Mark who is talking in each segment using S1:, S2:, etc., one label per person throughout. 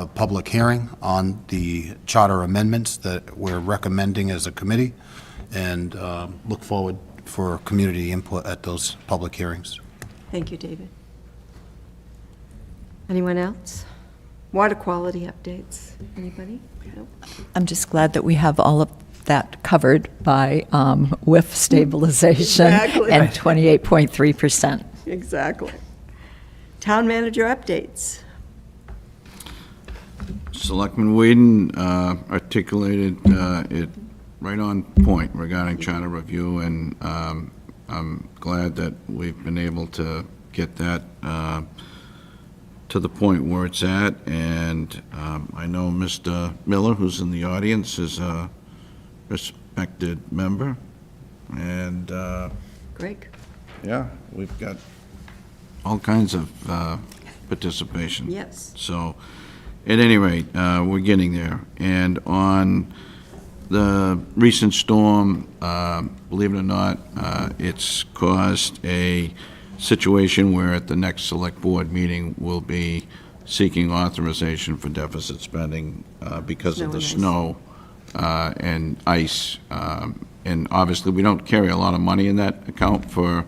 S1: a public hearing on the charter amendments that we're recommending as a committee, and um, look forward for community input at those public hearings.
S2: Thank you, David. Anyone else? Water quality updates, anybody? Nope.
S3: I'm just glad that we have all of that covered by um, WIF stabilization
S2: Exactly.
S3: and 28.3%.
S2: Exactly. Town manager updates.
S4: Selectman Whedon uh, articulated uh, it right on point regarding charter review, and um, I'm glad that we've been able to get that uh, to the point where it's at, and um, I know Mr. Miller, who's in the audience, is a respected member, and, uh,
S2: Greg?
S4: yeah, we've got all kinds of uh, participation.
S2: Yes.
S4: So, at any rate, uh, we're getting there. And on the recent storm, uh, believe it or not, uh, it's caused a situation where at the next Select Board meeting, we'll be seeking authorization for deficit spending uh, because of the
S2: Snow
S4: snow uh, and ice. Um, And obviously, we don't carry a lot of money in that account for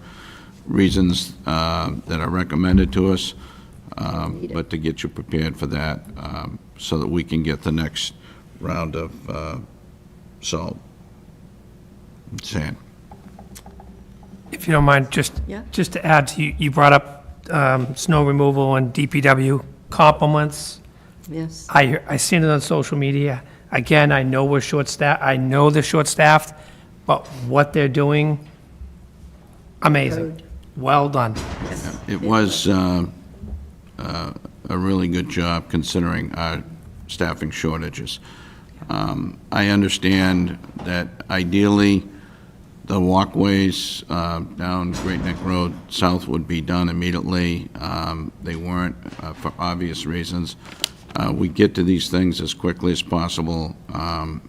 S4: reasons uh, that are recommended to us, um, but to get you prepared for that, um, so that we can get the next round of uh, salt and sand.
S5: If you don't mind, just,
S2: Yeah.
S5: just to add, to you you brought up um, snow removal and DPW compliments.
S2: Yes.
S5: I, hear- I seen it on social media. Again, I know we're short-staffed, I know they're short-staffed, but what they're doing, amazing. Well done.
S4: It was um, uh, a really good job considering our staffing shortages. Um, I understand that ideally, the walkways uh, down Great Neck Road south would be done immediately. Um, They weren't, uh, for obvious reasons. Uh, We get to these things as quickly as possible, um,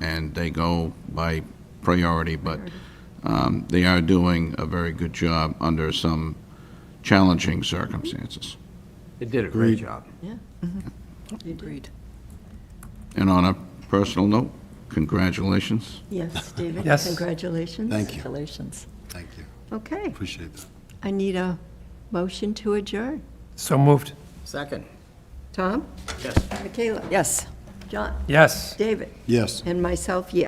S4: and they go by priority, but um, they are doing a very good job under some challenging circumstances.
S6: It did a great job.
S3: Agreed.
S4: And on a personal note, congratulations.
S2: Yes, David?
S5: Yes.
S2: Congratulations.
S1: Thank you,
S3: Congratulations.
S1: thank you,
S2: Okay,
S1: appreciate that.
S2: I need a motion to adjourn.
S5: So moved.
S6: Second.
S2: Tom?
S6: Yes.
S2: Michaela?
S3: Yes.
S2: John?
S5: Yes.
S2: David?
S1: Yes.
S2: And myself, yes.